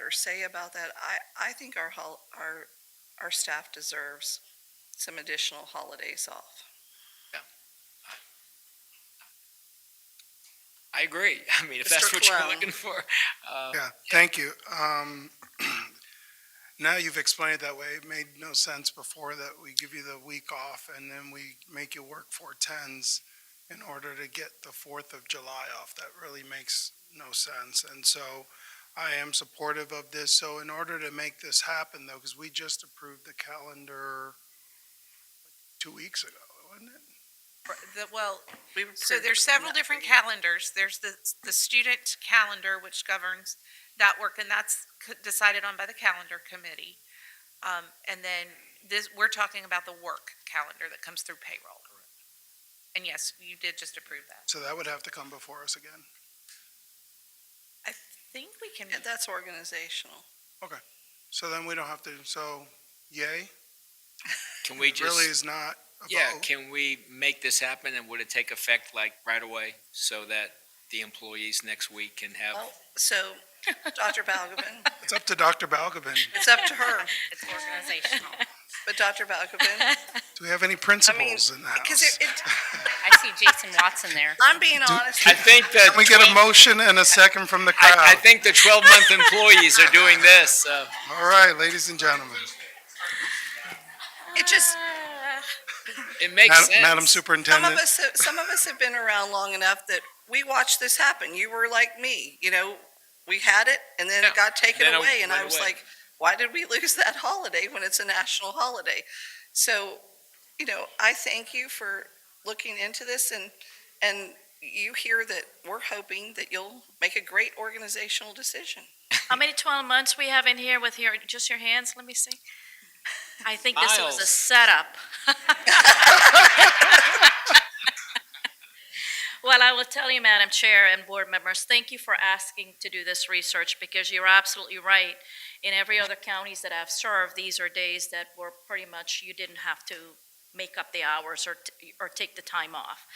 or say about that. I, I think our, hol- our, our staff deserves some additional holidays off. I agree. I mean, if Mr. that's what you're Cologne. looking for. uh, Yeah, thank you. Um, Now you've explained it that way. It made no sense before that we give you the week off and then we make you work four tens in order to get the Fourth of July off. That really makes no sense. And so I am supportive of this. So in order to make this happen though, because we just approved the calendar two weeks ago, wasn't it? The, well, We so approved there's several that different meeting. calendars. There's the, the student calendar, which governs that work, and that's c- decided on by the calendar committee. Um, and then this, we're talking about the work calendar that comes through payroll. And yes, you did just approve that. So that would have to come before us again. I think we can, Yeah, That's organizational. So then we don't have to, so yay? Can we It Really just, is not a yeah, vote. can we make this happen and would it take effect like right away so that the employees next week can have? Well, So, Dr. Balgobin, It's up to Dr. Balgobin. it's up to her, it's organizational. but Dr. Balgobin, Do we have any principles in the because house? it, it, I see Jason Watson there. I'm being honest. I think that. Can we get a uh, 12 motion and a second from the I, I crowd? think the twelve-month employees are doing this, uh, All right, ladies and gentlemen. It just, it makes Madam- sense. Madam some of Superintendent, us, have- some of us have been around long enough that we watched this happen. You were like me, you know, we had it and then Yeah, it got taken then it away. And I went was away. like, why did we lose that holiday when it's a national holiday? So, you know, I thank you for looking into this and, and you hear that we're hoping that you'll make a great organizational decision. How many 12 months we have in here with your, just your hands? Let me see. I think this was a Miles. setup. Well, I will tell you, Madam Chair and board members, thank you for asking to do this research because you're absolutely right. In every other counties that I've served, these are days that were pretty much, you didn't have to make up the hours or, t- or take the time off.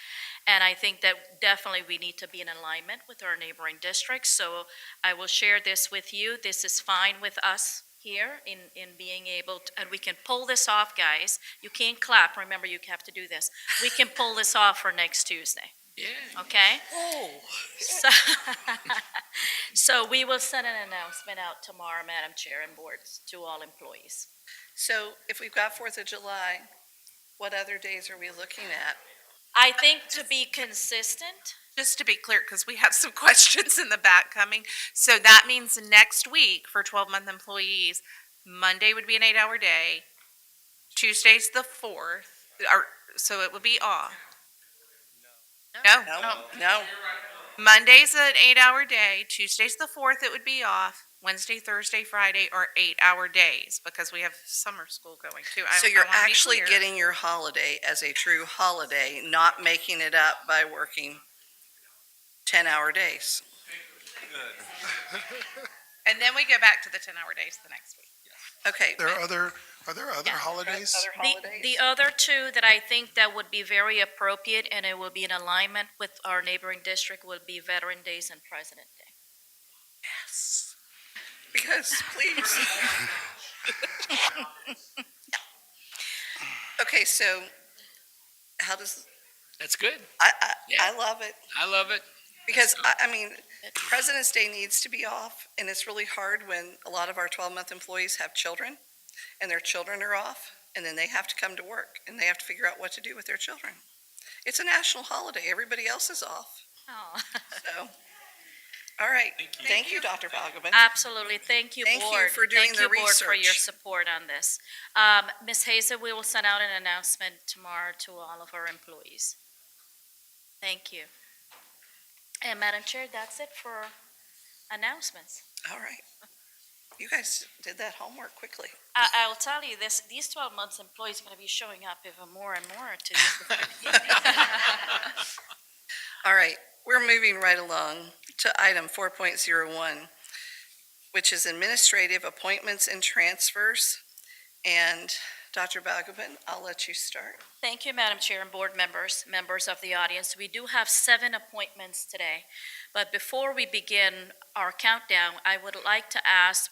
And I think that definitely we need to be in alignment with our neighboring districts. So I will share this with you. This is fine with us here in, in being able, to- and we can pull this off, guys. You can't clap, remember you have to do this. We can pull this off for next Tuesday, Yeah. okay? Oh. So, so we will send an announcement out tomorrow, Madam Chair and boards, to all employees. So if we've got Fourth of July, what other days are we looking at? I think to be consistent, Just to be clear, because we have some questions in the back coming. So that means next week for twelve-month employees, Monday would be an eight-hour day. Tuesday's the fourth, or, so it would be off. No, No, no. Monday's an eight-hour day, Tuesday's the fourth, it would be off. Wednesday, Thursday, Friday are eight-hour days because we have summer school going too. I- So I you're wanna be actually clear. getting your holiday as a true holiday, not making it up by working 10-hour days. And then we go back to the ten-hour days the next week. Okay. there are other, are there other holidays? Other the, holidays? the other two that I think that would be very appropriate and it will be in alignment with our neighboring district will be Veteran Days and President Day. Because, please. Okay, so how does, That's good. I, I, Yeah. I love it. I love it. Because, I, I mean, President's Day needs to be off, and it's really hard when a lot of our 12-month employees have children, and their children are off, and then they have to come to work, and they have to figure out what to do with their children. It's a national holiday, everybody else is off, Oh, so, all right. Thank you, Dr. Balgobin. absolutely. Thank you, Thank you board. for doing the Thank you, board, for your research. support on this. Um, Ms. Hazel, we will send out an announcement tomorrow to all of our employees. Thank you. And Madam Chair, that's it for announcements. All right. You guys did that homework quickly. I, I will tell you this, these twelve months employees are gonna be showing up even more and more to All right, we're moving right along to item 4.01, which is administrative appointments and transfers. And Dr. Balgobin, I'll let you start. Thank you, Madam Chair and board members, members of the audience. We do have seven appointments today, but before we begin our countdown, I would like to ask